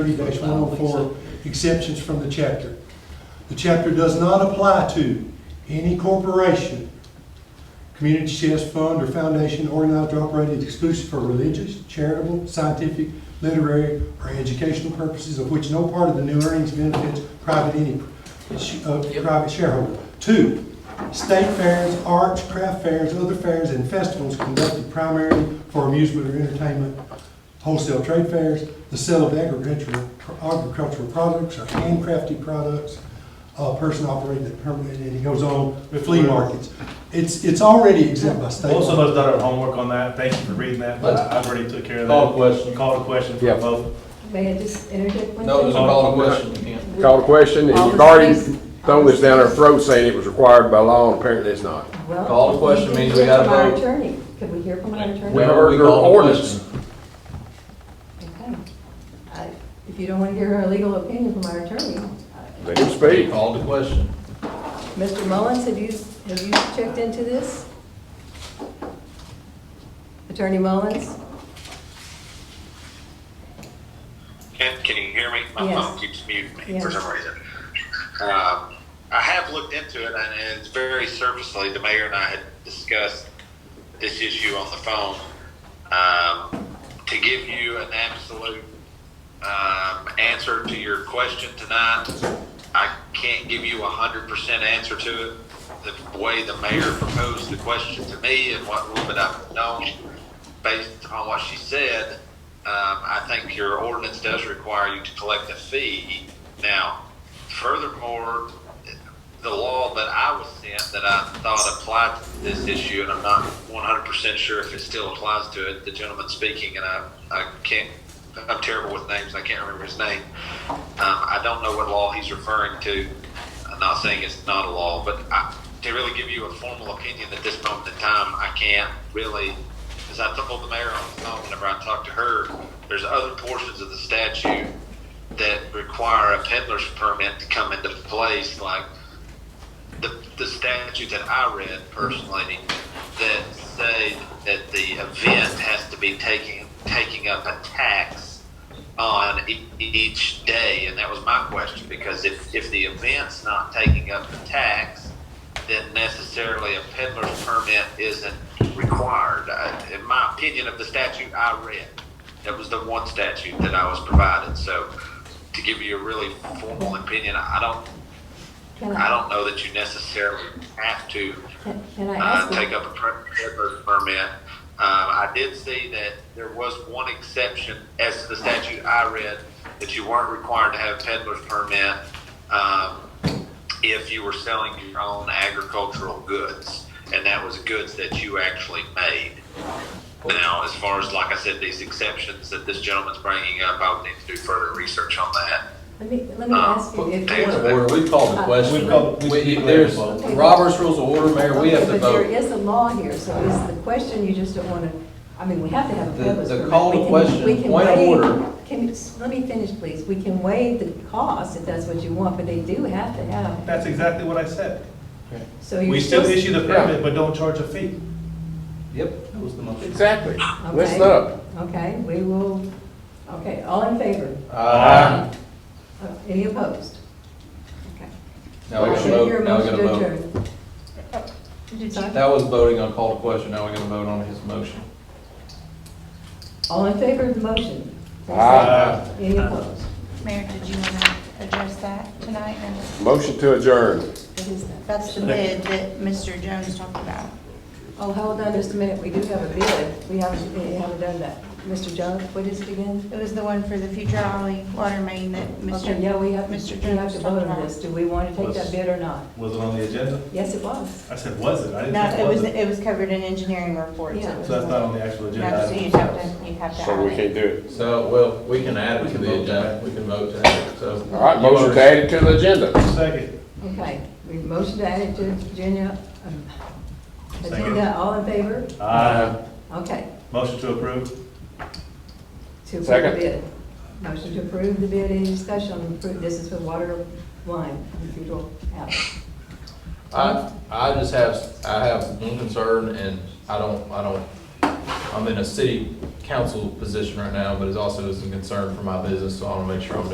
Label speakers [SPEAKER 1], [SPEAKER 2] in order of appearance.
[SPEAKER 1] thirty one oh four exemptions from the chapter. The chapter does not apply to any corporation, community chest fund or foundation organized or operated exclusively for religious, charitable, scientific, literary, or educational purposes of which no part of the new earnings benefits private any, uh,
[SPEAKER 2] Yep.
[SPEAKER 1] private shareholder. Two, state fairs, arts, craft fairs, other fairs, and festivals conducted primarily for amusement or entertainment wholesale trade fairs, the sale of agricultural, agricultural products or handcrafted products, uh, person operating it permanently, and he goes on with flea markets. It's, it's already exempt by state
[SPEAKER 3] Most of
[SPEAKER 1] law.
[SPEAKER 3] us done our homework on that, thank you for reading that, but I- I've already took care of that.
[SPEAKER 4] Call the question.
[SPEAKER 3] Call the question for
[SPEAKER 5] Yeah.
[SPEAKER 3] a vote.
[SPEAKER 6] May I just interject one thing?
[SPEAKER 4] No, there's a call to question, you can't.
[SPEAKER 5] Call the question, and you've already thrown this down our throat saying it was required by law, and apparently it's not.
[SPEAKER 6] Well,
[SPEAKER 4] Call the question
[SPEAKER 6] can
[SPEAKER 4] means
[SPEAKER 6] hear
[SPEAKER 4] we gotta
[SPEAKER 6] from our
[SPEAKER 4] vote.
[SPEAKER 6] attorney. Can we hear from our attorney?
[SPEAKER 5] We
[SPEAKER 4] No,
[SPEAKER 5] heard your
[SPEAKER 4] call the
[SPEAKER 5] ordinance.
[SPEAKER 4] question.
[SPEAKER 6] Okay. I- If you don't want to hear a legal opinion from our attorney, uh,
[SPEAKER 5] Let him speak.
[SPEAKER 4] Call the question.
[SPEAKER 6] Mr. Mullins, have you, have you checked into this? Attorney Mullins?
[SPEAKER 7] Can, can you hear me? My
[SPEAKER 6] Yes.
[SPEAKER 7] phone keeps muting me for
[SPEAKER 6] Yes.
[SPEAKER 7] some reason. Um, I have looked into it, and it's very surfacely. The mayor and I had discussed this issue on the phone. Um, to give you an absolute um, answer to your question tonight, I can't give you a hundred percent answer to it. The way the mayor proposed the question to me and what little bit I've known, based on what she said, um, I think your ordinance does require you to collect a fee. Now, furthermore, the law that I was sent that I thought applied to this issue, and I'm not 100% sure if it still applies to it, the gentleman speaking, and I, I can't, I'm terrible with names, I can't remember his name. Um, I don't know what law he's referring to. I'm not saying it's not a law, but I, to really give you a formal opinion at this moment in time, I can't really as I told the mayor on the phone whenever I talked to her, there's other portions of the statute that require a peddler's permit to come into place, like the, the statute that I read personally that say that the event has to be taking, taking up a tax on e- each day, and that was my question, because if, if the event's not taking up the tax, then necessarily a peddler's permit isn't required. I- In my opinion of the statute I read, that was the one statute that I was provided, so to give you a really formal opinion, I don't
[SPEAKER 6] Can
[SPEAKER 7] I don't know that you necessarily have to
[SPEAKER 6] can- Can I
[SPEAKER 7] uh,
[SPEAKER 6] ask? you-
[SPEAKER 7] take up a per- peddler's permit. Um, I did see that there was one exception, as to the statute I read, that you weren't required to have a peddler's permit um, if you were selling your own agricultural goods, and that was goods that you actually made. Now, as far as, like I said, these exceptions that this gentleman's bringing up, I would need to do further research on that.
[SPEAKER 6] Let me, let me ask
[SPEAKER 7] Um,
[SPEAKER 6] you if
[SPEAKER 4] Point of
[SPEAKER 6] you...
[SPEAKER 4] order, we've called
[SPEAKER 6] Uh,
[SPEAKER 4] the
[SPEAKER 3] We've
[SPEAKER 4] question.
[SPEAKER 3] called- we've
[SPEAKER 4] We-
[SPEAKER 3] declared
[SPEAKER 4] There's
[SPEAKER 3] the vote.
[SPEAKER 4] Robert's Rules of Order, Mayor, we have
[SPEAKER 6] Okay,
[SPEAKER 4] to
[SPEAKER 6] But there
[SPEAKER 4] vote.
[SPEAKER 6] is a law here, so is the question, you just don't want to, I mean, we have to have a
[SPEAKER 4] The-
[SPEAKER 6] peddler's
[SPEAKER 4] the
[SPEAKER 6] permit.
[SPEAKER 4] call
[SPEAKER 6] We
[SPEAKER 4] to
[SPEAKER 6] can-
[SPEAKER 4] question,
[SPEAKER 6] we can
[SPEAKER 4] point of
[SPEAKER 6] waive-
[SPEAKER 4] order.
[SPEAKER 6] Can, you- let me finish, please. We can waive the cost if that's what you want, but they do have to have,
[SPEAKER 3] That's exactly what I said.
[SPEAKER 6] so you're
[SPEAKER 3] We still
[SPEAKER 6] supposed-
[SPEAKER 3] issue the permit, but don't charge a fee.
[SPEAKER 4] Yep, that was the motion.
[SPEAKER 5] Exactly.
[SPEAKER 6] Okay.
[SPEAKER 5] Listen up.
[SPEAKER 6] Okay, we will, okay, all in favor?
[SPEAKER 4] Aye.
[SPEAKER 6] Uh, Any opposed? Okay.
[SPEAKER 4] Now we're gonna
[SPEAKER 6] Can I hear
[SPEAKER 4] vote,
[SPEAKER 6] a
[SPEAKER 4] now we're
[SPEAKER 6] motion
[SPEAKER 4] gonna
[SPEAKER 6] to
[SPEAKER 4] vote.
[SPEAKER 6] adjourn? Sorry?
[SPEAKER 4] That was voting on call to question, now we're gonna vote on his motion.
[SPEAKER 6] All in favor of the motion?
[SPEAKER 5] Aye.
[SPEAKER 6] Any opposed?
[SPEAKER 8] Mayor, did you want to address that tonight? And
[SPEAKER 5] Motion to adjourn.
[SPEAKER 6] What is that?
[SPEAKER 8] That's the bid that Mr. Jones talked about.
[SPEAKER 6] Oh, hold on just a minute, we do have a bid, we haven't, we haven't done that. Mr. Jones, what is it again?
[SPEAKER 8] It was the one for the future alley water main that Mr.
[SPEAKER 6] Okay, yeah, we have,
[SPEAKER 8] Mr.
[SPEAKER 6] we have
[SPEAKER 8] Jones
[SPEAKER 6] to
[SPEAKER 8] talked
[SPEAKER 6] vote on
[SPEAKER 8] about.
[SPEAKER 6] this, do we want to take that bid or not?
[SPEAKER 3] Was it on the agenda?
[SPEAKER 6] Yes, it was.
[SPEAKER 3] I said, was it? I didn't
[SPEAKER 8] No,
[SPEAKER 3] think
[SPEAKER 8] it was,
[SPEAKER 3] it
[SPEAKER 8] it was covered in engineering reports. It
[SPEAKER 6] Yeah.
[SPEAKER 3] was.
[SPEAKER 8] was-
[SPEAKER 3] So that's not on the actual agenda.
[SPEAKER 8] No, so
[SPEAKER 3] item.
[SPEAKER 8] you'd have to, you'd have to.
[SPEAKER 5] So we
[SPEAKER 8] add it.
[SPEAKER 5] can't do it.
[SPEAKER 4] So, well, we can add
[SPEAKER 3] We
[SPEAKER 4] it to
[SPEAKER 3] can
[SPEAKER 4] the
[SPEAKER 3] vote to
[SPEAKER 4] agenda,
[SPEAKER 3] add.
[SPEAKER 4] we can vote to add it, so.
[SPEAKER 5] All right, motion to add it to the agenda.
[SPEAKER 3] Second.
[SPEAKER 6] Okay, we motioned to add it to agenda, um,
[SPEAKER 3] Second.
[SPEAKER 6] agenda, all in favor?
[SPEAKER 3] Aye.
[SPEAKER 6] Okay.
[SPEAKER 3] Motion to approve?
[SPEAKER 6] To approve the
[SPEAKER 5] Second.
[SPEAKER 6] bid. Motion to approve the bid, any discussion on appro- this is for water line, in Federal Alley.
[SPEAKER 4] I, I just have, I have one concern, and I don't, I don't, I'm in a city council position right now, but it also is a concern for my business, so I want to make sure I'm doing